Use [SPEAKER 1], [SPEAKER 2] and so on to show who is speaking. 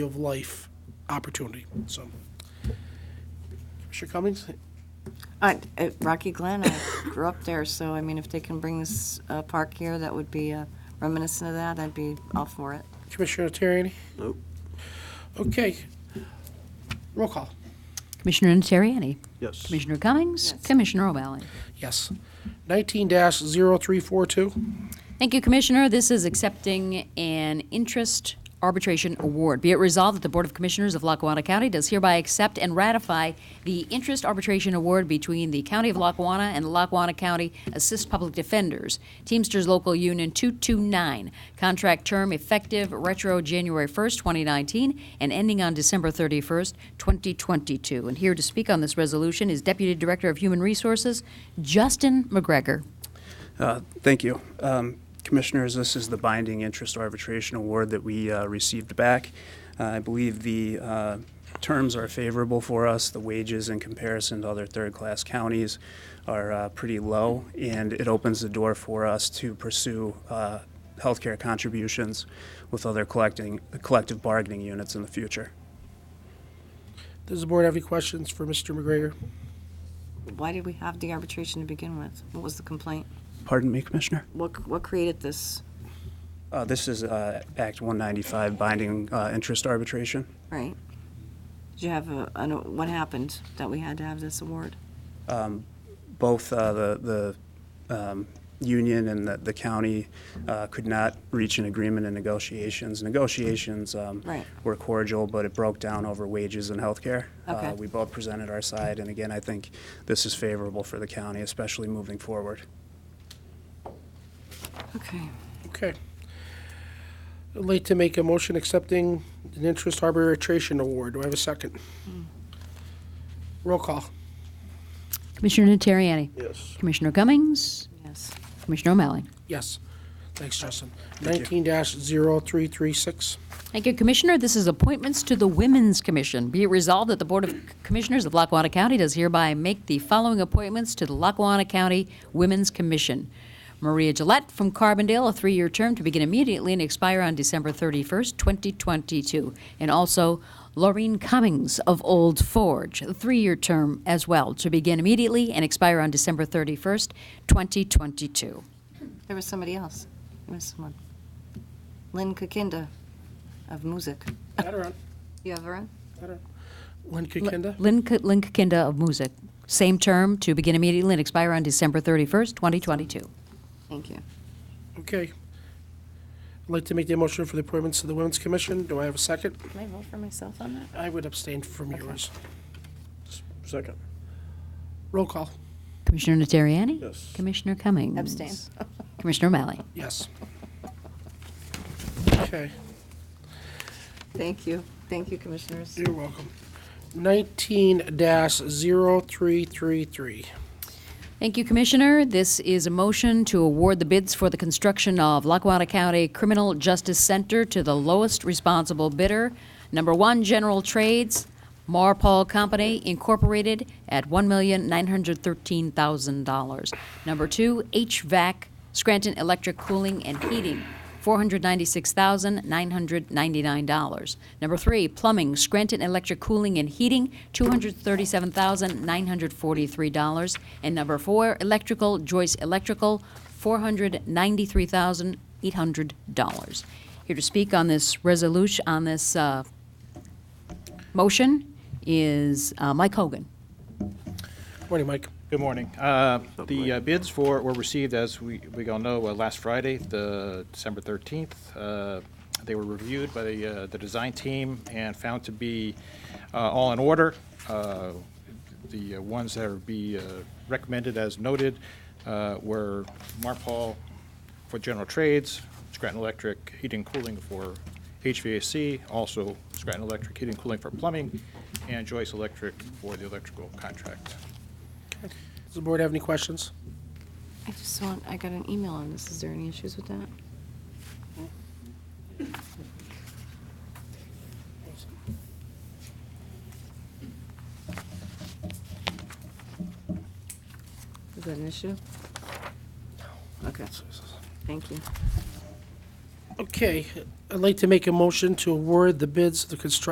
[SPEAKER 1] of life opportunity, so. Commissioner Cummings,
[SPEAKER 2] I- at Rocky Glen, I grew up there, so I mean, if they can bring this uh, park here, that would be uh, reminiscent of that, I'd be all for it.
[SPEAKER 1] Commissioner Terriani?
[SPEAKER 3] Nope.
[SPEAKER 1] Okay. Roll call,
[SPEAKER 4] Commissioner Niteriani.
[SPEAKER 3] Yes.
[SPEAKER 4] Commissioner Cummings. Commissioner O'Malley.
[SPEAKER 1] yes. Nineteen dash zero three four two,
[SPEAKER 4] Thank you, Commissioner. This is accepting an interest arbitration award. Be it resolved that the Board of Commissioners of Lackawanna County does hereby accept and ratify the interest arbitration award between the County of Lackawanna and the Lackawanna County Assist Public Defenders, Teamsters Local Union 229. Contract term effective retro January 1st, 2019, and ending on December 31st, 2022. And here to speak on this resolution is Deputy Director of Human Resources, Justin McGregor.
[SPEAKER 5] Uh, Thank you. Um, Commissioners, this is the binding interest arbitration award that we uh, received back. Uh, I believe the uh, terms are favorable for us. The wages in comparison to other third-class counties are uh, pretty low, and it opens the door for us to pursue uh, healthcare contributions with other collecting, collective bargaining units in the future.
[SPEAKER 1] does the board have any questions for Mr. McGregor?
[SPEAKER 2] Why did we have the arbitration to begin with? What was the complaint?
[SPEAKER 5] Pardon me, Commissioner?
[SPEAKER 2] What, what created this,
[SPEAKER 5] Uh, This is uh, Act 195, binding uh, interest arbitration.
[SPEAKER 2] right? Did you have a, I know- what happened that we had to have this award?
[SPEAKER 5] both uh, the, the um, union and the, the county uh, could not reach an agreement in negotiations. Negotiations um,
[SPEAKER 2] Right.
[SPEAKER 5] were cordial, but it broke down over wages and health care.
[SPEAKER 2] Okay.
[SPEAKER 5] We both presented our side, and again, I think this is favorable for the county, especially moving forward.
[SPEAKER 2] Okay.
[SPEAKER 1] Okay. I'd like to make a motion accepting an interest arbitration award. Do I have a second? Roll call,
[SPEAKER 4] Commissioner Niteriani.
[SPEAKER 3] Yes.
[SPEAKER 4] Commissioner Cummings,
[SPEAKER 2] Yes.
[SPEAKER 4] Commissioner O'Malley.
[SPEAKER 1] yes. Thanks, Justin.
[SPEAKER 5] Thank
[SPEAKER 1] Nineteen dash zero three three six,
[SPEAKER 4] Thank you, Commissioner. This is appointments to the Women's Commission. Be it resolved that the Board of Commissioners of Lackawanna County does hereby make the following appointments to the Lackawanna County Women's Commission. Maria Gillette from Carbondale, a three-year term to begin immediately and expire on December 31st, 2022. And also Laureen Cummings of Old Forge, a three-year term as well, to begin immediately and expire on December 31st, 2022.
[SPEAKER 2] There was somebody else. There was someone. Lynn Kakinda of Music.
[SPEAKER 1] Adirond,
[SPEAKER 2] You have her in?
[SPEAKER 1] Lynn Kakinda?
[SPEAKER 4] Lynn, K- Lynn Kinda of Music. Same term to begin immediately and expire on December 31st, 2022.
[SPEAKER 2] Thank you.
[SPEAKER 1] Okay. I'd like to make the motion for the appointments to the Women's Commission. Do I have a second?
[SPEAKER 2] Can I vote for myself on that?
[SPEAKER 1] I would abstain from yours.
[SPEAKER 3] Second.
[SPEAKER 1] Roll call,
[SPEAKER 4] Commissioner Niteriani?
[SPEAKER 3] Yes.
[SPEAKER 4] Commissioner Cummings?
[SPEAKER 2] Abstain.
[SPEAKER 4] Commissioner O'Malley?
[SPEAKER 1] yes. Okay,
[SPEAKER 2] Thank you. Thank you, Commissioners.
[SPEAKER 1] you're welcome. Nineteen dash zero three three three.
[SPEAKER 4] Thank you, Commissioner. This is a motion to award the bids for the construction of Lackawanna County Criminal Justice Center to the lowest responsible bidder. Number one, General Trades, Marpol Company Incorporated at $1,913,000. Number two, HVAC, Scranton Electric Cooling and Heating, $496,999. Number three, plumbing, Scranton Electric Cooling and Heating, $237,943. And number four, electrical, Joyce Electrical, $493,800. Here to speak on this resolution, on this uh, motion is uh, Mike Hogan.
[SPEAKER 1] Morning, Mike.
[SPEAKER 6] Good morning. Uh, The uh, bids for, were received, as we, we all know, uh, last Friday, the December 13th. Uh, They were reviewed by the, uh, the design team and found to be uh, all in order. Uh, The uh, ones that would be uh, recommended as noted uh, were Marpol for general trades, Scranton Electric heating and cooling for HVAC, also Scranton Electric heating and cooling for plumbing, and Joyce Electric for the electrical contract.
[SPEAKER 1] Does the board have any questions?
[SPEAKER 2] I just want, I got an email on this. Is there any issues with that? Is that an issue? Okay, thank you.
[SPEAKER 1] Okay, I'd like to make a motion to award the bids of the construction